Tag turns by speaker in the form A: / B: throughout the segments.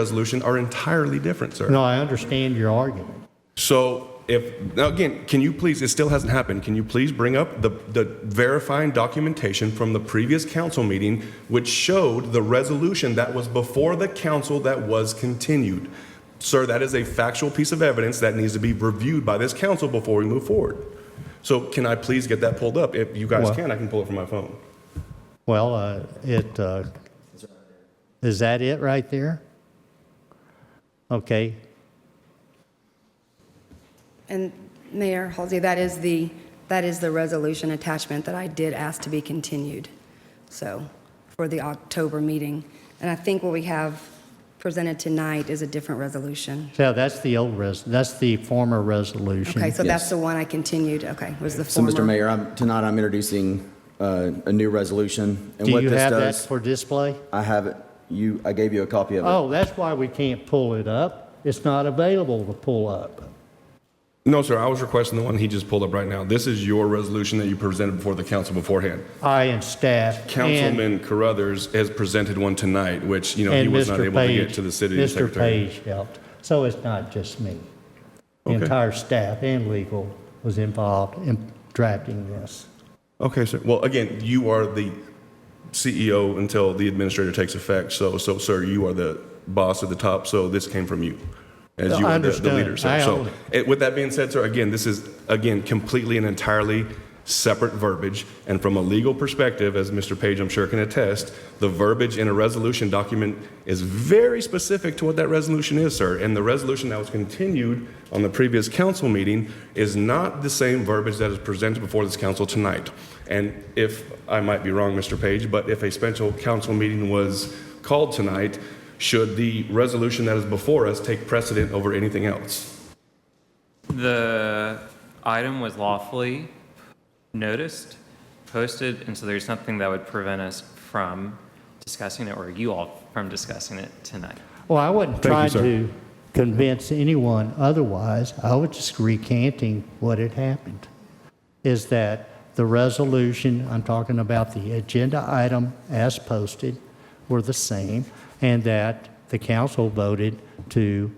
A: resolution are entirely different, sir.
B: No, I understand your argument.
A: So if, now again, can you please, it still hasn't happened, can you please bring up the, the verifying documentation from the previous council meeting which showed the resolution that was before the council that was continued? Sir, that is a factual piece of evidence that needs to be reviewed by this council before we move forward. So can I please get that pulled up? If you guys
B: Well-
A: can, I can pull it from my phone.
B: Well, uh, it, uh, is that it right there? Okay,
C: And Mayor Halsey, that is the, that is the resolution attachment that I did ask to be continued, so, for the October meeting. And I think what we have presented tonight is a different resolution.
B: so that's the old res, that's the former resolution.
C: Okay, so that's
D: Mm-hmm. Yes.
C: the one I continued, okay, was the
D: So,
C: former.
D: Mr. Mayor, I'm, tonight I'm introducing uh, a new resolution. and
B: Do
D: what
B: you
D: this
B: have that
D: does-
B: for display?
D: I have it. You, I gave you a copy of it.
B: Oh, that's why we can't pull it up. It's not available to pull up.
A: No, sir, I was requesting the one he just pulled up right now. This is your resolution that you presented before the council beforehand.
B: I and staff. and-
A: Councilman Carruthers has presented one tonight, which, you know, he
B: and
A: was
B: Mr.
A: not
B: Page.
A: able to get to the city
B: Mr.
A: secretary.
B: Page helped. So it's not just me. The
A: Okay.
B: entire staff and legal was involved in drafting this.
A: Okay, sir. Well, again, you are the CEO until the administrator takes effect. So, so, sir, you are the boss at the top. So this came from you, as
B: No,
A: you
B: I
A: are the, the
B: understand.
A: leader, sir.
B: I
A: So,
B: only-
A: it, with that being said, sir, again, this is again completely and entirely separate verbiage. And from a legal perspective, as Mr. Page, I'm sure can attest, the verbiage in a resolution document is very specific to what that resolution is, sir. And the resolution that was continued on the previous council meeting is not the same verbiage that is presented before this council tonight. And if I might be wrong, Mr. Page, but if a special council meeting was called tonight, should the resolution that is before us take precedent over anything else?
E: The item was lawfully noticed, posted, and so there's nothing that would prevent us from discussing it, or you all from discussing it tonight.
B: Well, I wasn't
A: Thank you,
B: trying
A: sir.
B: to convince anyone otherwise. I was just recanting what had happened. Is that the resolution, I'm talking about the agenda item as posted, were the same, and that the council voted to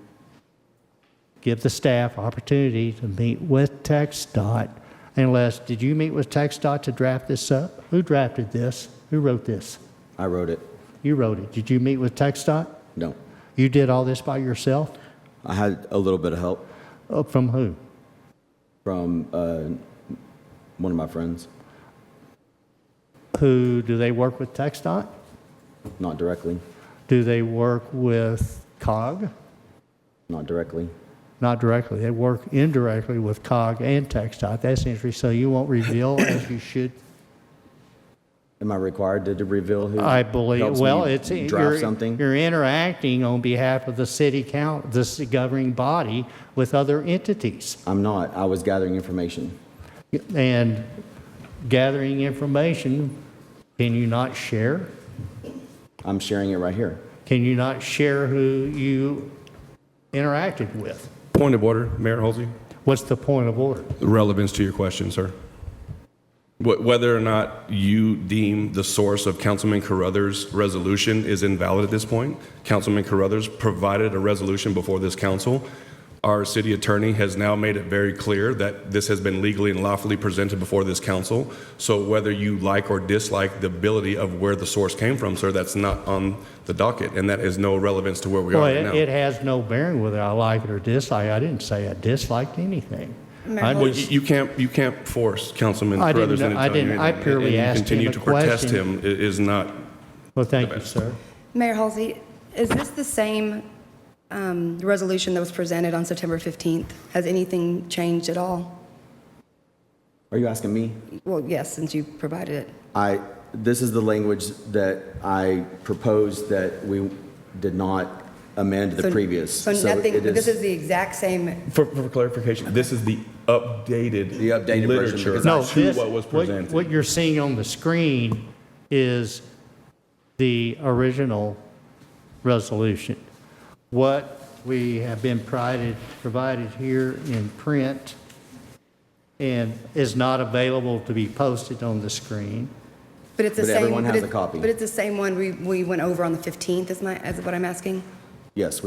B: give the staff opportunity to meet with TxDOT unless, did you meet with TxDOT to draft this up? Who drafted this? Who wrote this?
D: I wrote it.
B: You wrote it. Did you meet with TxDOT?
D: No,
B: You did all this by yourself?
D: I had a little bit of help
B: Uh, From who?
D: from uh, one of my friends,
B: Who, do they work with TxDOT?
D: not directly,
B: Do they work with COG?
D: not directly.
B: Not directly, they work indirectly with COG and TxDOT. That's interesting, so you won't reveal as you should.
D: Am I required to to reveal who?
B: I believe,
D: helps
B: well,
D: me
B: it's.
D: Draft
B: you're-
D: something?
B: You're interacting on behalf of the city count, the ci- governing body with other entities
D: I'm not. I was gathering information.
B: and gathering information. Can you not share?
D: I'm sharing it right here.
B: Can you not share who you interacted with?
A: Point of order, Mayor Halsey.
B: What's the point of order?
A: Relevance to your question, sir. Wh- Whether or not you deem the source of Councilman Carruthers' resolution is invalid at this point, Councilman Carruthers provided a resolution before this council. Our city attorney has now made it very clear that this has been legally and lawfully presented before this council. So whether you like or dislike the ability of where the source came from, sir, that's not on the docket, and that is no relevance to where we are
B: Well,
A: right
B: it,
A: now.
B: it has no bearing whether I like it or dislike. I didn't say I disliked anything. I
A: Well,
B: just-
A: you you can't, you can't force Councilman
B: I didn't
A: Carruthers
B: know-
A: into
B: I
A: telling you anything.
B: didn't- I purely
A: And you
B: asked him
A: continue
B: a
A: to protest
B: question.
A: him i- is not,
B: Well, thank you, sir.
C: Mayor Halsey, is this the same um, resolution that was presented on September 15th? Has anything changed at all?
D: Are you asking me?
C: Well, yes, since you provided it.
D: I, this is the language that I proposed that we did not amend the
C: So-
D: previous.
C: So nothing,
D: it
C: this is the exact same
A: for for clarification, this is the updated
D: The updated version,
A: literature
D: because I-
B: No,
A: to
B: this,
A: what was
B: what,
A: presented.
B: what you're seeing on the screen is the original resolution. What we have been provided, provided here in print and is not available to be posted on the screen.
C: But it's the
D: But
C: same.
D: everyone has
C: it-
D: a copy.
C: But it's the same one we, we went over on the 15th, is my, is what I'm asking?
D: Yes,